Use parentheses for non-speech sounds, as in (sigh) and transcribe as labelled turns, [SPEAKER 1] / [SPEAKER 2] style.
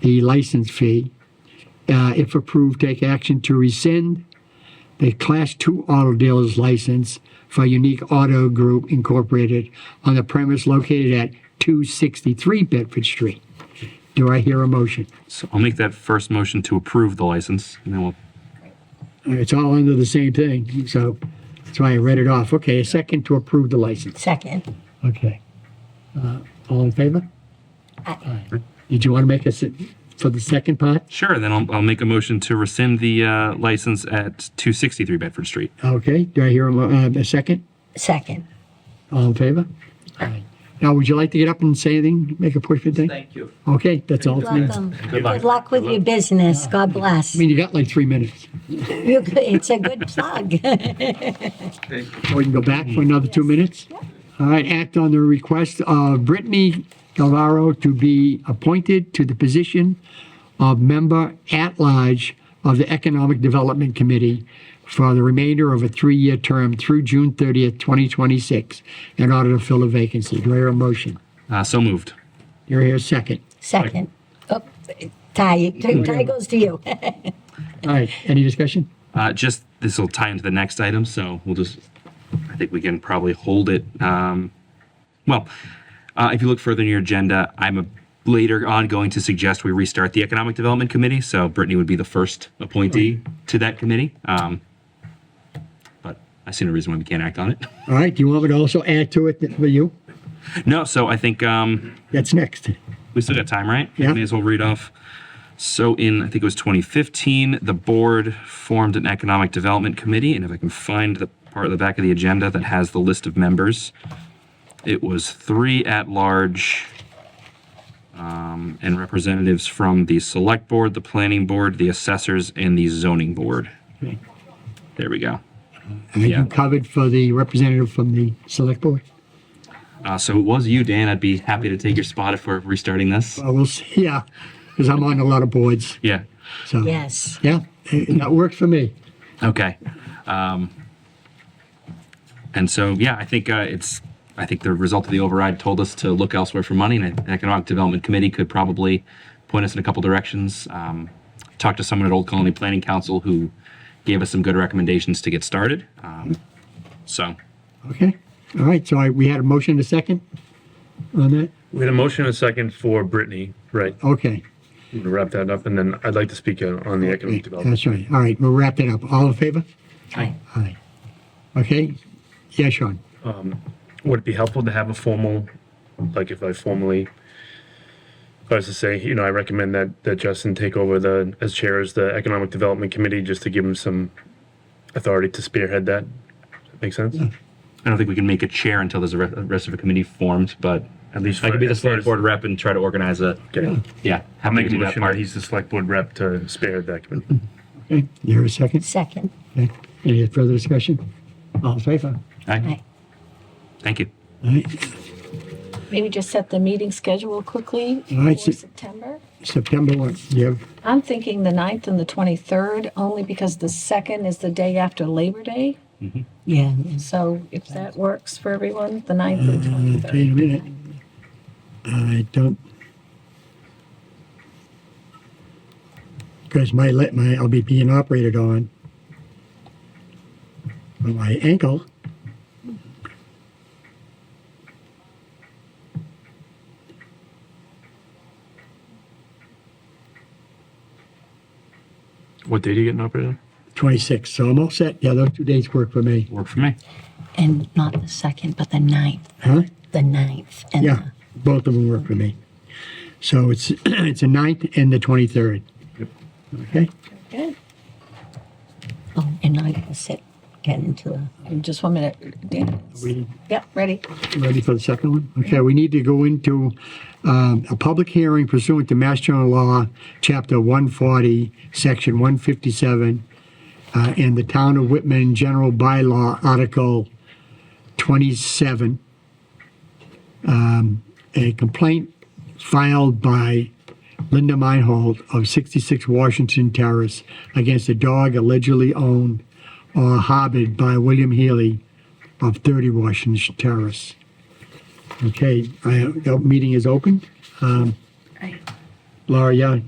[SPEAKER 1] the license fee. Uh, If approved, take action to rescind the Class II Auto Dealer's license for Unique Auto Group Incorporated on the premise located at 263 Bedford Street. Do I hear a motion?
[SPEAKER 2] So I'll make that first motion to approve the license, and then we'll,
[SPEAKER 1] It's all under the same thing, so that's why I read it off. Okay, a second to approve the license.
[SPEAKER 3] Second.
[SPEAKER 1] Okay. Uh, All in favor? Aye. Did you want to make us, for the second part?
[SPEAKER 2] sure, then I'll, I'll make a motion to rescind the uh, license at 263 Bedford Street.
[SPEAKER 1] Okay, do I hear a mo- uh, a second?
[SPEAKER 3] Second.
[SPEAKER 1] All in favor? Aye. Now, would you like to get up and say anything, make a push for thing?
[SPEAKER 4] Thank you.
[SPEAKER 1] Okay, that's all. I mean,
[SPEAKER 3] Good luck with your business. God bless.
[SPEAKER 1] you got like three minutes.
[SPEAKER 3] You're good. It's a good plug. (laughs)
[SPEAKER 4] Thank you.
[SPEAKER 1] So we can go back for another two minutes? All right, act on the request of Brittany Galvaro to be appointed to the position of member at large of the Economic Development Committee for the remainder of a three-year term through June 30th, 2026, in order to fill a vacancy. Do I hear a motion?
[SPEAKER 2] Uh, So moved.
[SPEAKER 1] Do I hear a second?
[SPEAKER 3] Second. Oh, Ty, Ty goes to you. (laughs)
[SPEAKER 1] All right, any discussion?
[SPEAKER 2] Uh, Just, this will tie into the next item, so we'll just, I think we can probably hold it. um, Well, uh, if you look further in your agenda, I'm a- later on going to suggest we restart the Economic Development Committee, so Brittany would be the first appointee to that committee. Um, But I see no reason why we can't act on it. (laughs)
[SPEAKER 1] All right, do you want me to also add to it for you?
[SPEAKER 2] No, so I think um,
[SPEAKER 1] That's next.
[SPEAKER 2] We still got time, right?
[SPEAKER 1] Yeah.
[SPEAKER 2] May as well read off. So in, I think it was 2015, the board formed an economic development committee. And if I can find the part of the back of the agenda that has the list of members, it was three at large um, and representatives from the select board, the planning board, the assessors, and the zoning board.
[SPEAKER 1] Okay.
[SPEAKER 2] There we go.
[SPEAKER 1] Are you
[SPEAKER 2] Yeah.
[SPEAKER 1] covered for the representative from the select board?
[SPEAKER 2] Uh, so it was you, Dan. I'd be happy to take your spot if we're restarting this.
[SPEAKER 1] I will, Uh, see, (laughs) yeah, because I'm on a lot of boards,
[SPEAKER 2] Yeah.
[SPEAKER 1] so.
[SPEAKER 3] Yes.
[SPEAKER 1] Yeah, eh, that worked for me.
[SPEAKER 2] Okay. Um, and so, yeah, I think uh, it's, I think the result of the override told us to look elsewhere for money, and the Economic Development Committee could probably point us in a couple directions. Um, talked to someone at Old Colony Planning Council who gave us some good recommendations to get started. Um, so,
[SPEAKER 1] Okay, all right, so I, we had a motion to second on that?
[SPEAKER 5] We had a motion and a second for Brittany, right?
[SPEAKER 1] Okay,
[SPEAKER 5] I'm gonna wrap that up, and then I'd like to speak uh, on the
[SPEAKER 1] eh,
[SPEAKER 5] economic development.
[SPEAKER 1] that's right, all right, we'll wrap that up. All in favor?
[SPEAKER 3] Aye.
[SPEAKER 1] Aye. Okay, yeah, Sean,
[SPEAKER 5] Would it be helpful to have a formal, like if I formally, if I was to say, you know, I recommend that, that Justin take over the, as chair as the Economic Development Committee, just to give him some authority to spearhead that? Make sense?
[SPEAKER 2] I don't think we can make a chair until there's a re- rest of a committee formed, but at least I could be the
[SPEAKER 5] as far
[SPEAKER 2] select
[SPEAKER 5] as-
[SPEAKER 2] board rep and try to organize a,
[SPEAKER 5] Okay.
[SPEAKER 2] yeah,
[SPEAKER 5] I'll
[SPEAKER 2] happy
[SPEAKER 5] make
[SPEAKER 2] to do
[SPEAKER 5] a
[SPEAKER 2] that
[SPEAKER 5] motion that
[SPEAKER 2] part.
[SPEAKER 5] he's the select board rep to spearhead that committee.
[SPEAKER 1] okay, you hear a second?
[SPEAKER 3] Second.
[SPEAKER 1] Okay, any further discussion? All in favor?
[SPEAKER 2] Aye.
[SPEAKER 3] Aye.
[SPEAKER 2] Thank you.
[SPEAKER 1] All right,
[SPEAKER 6] Maybe just set the meeting schedule quickly
[SPEAKER 1] All right,
[SPEAKER 6] for
[SPEAKER 1] so-
[SPEAKER 6] September.
[SPEAKER 1] September one, you have,
[SPEAKER 6] I'm thinking the 9th and the 23rd, only because the 2nd is the day after Labor Day.
[SPEAKER 3] Yeah.
[SPEAKER 6] So if that works for everyone, the 9th and
[SPEAKER 1] uh, wait a
[SPEAKER 6] 23rd.
[SPEAKER 1] minute. I don't. Because my, let my, I'll be being operated on. for My ankle.
[SPEAKER 5] What date are you getting operated on?
[SPEAKER 1] 26, so I'm all set. Yeah, those two dates work for me.
[SPEAKER 2] Work for me.
[SPEAKER 3] And not the second, but the ninth.
[SPEAKER 1] Huh?
[SPEAKER 3] The ninth. And
[SPEAKER 1] Yeah, both of them work for me. So it's, (clears throat) it's the 9th and the 23rd. Okay,
[SPEAKER 6] Okay.
[SPEAKER 3] the- oh, and I can sit, get into the.
[SPEAKER 6] And Just one minute. Dan.
[SPEAKER 1] we
[SPEAKER 6] Yep, ready.
[SPEAKER 1] ready for the second one? Okay, we need to go into um, a public hearing pursuant to Mass General Law, Chapter 140, Section 157, uh, and the Town of Whitman General Bylaw, Article 27. Um, a complaint filed by Linda Meinhold of 66 Washington Terrace against a dog allegedly owned or harbored by William Healy of 30 Washington Terrace. Okay, I, the meeting is open. Um, Laura, yeah,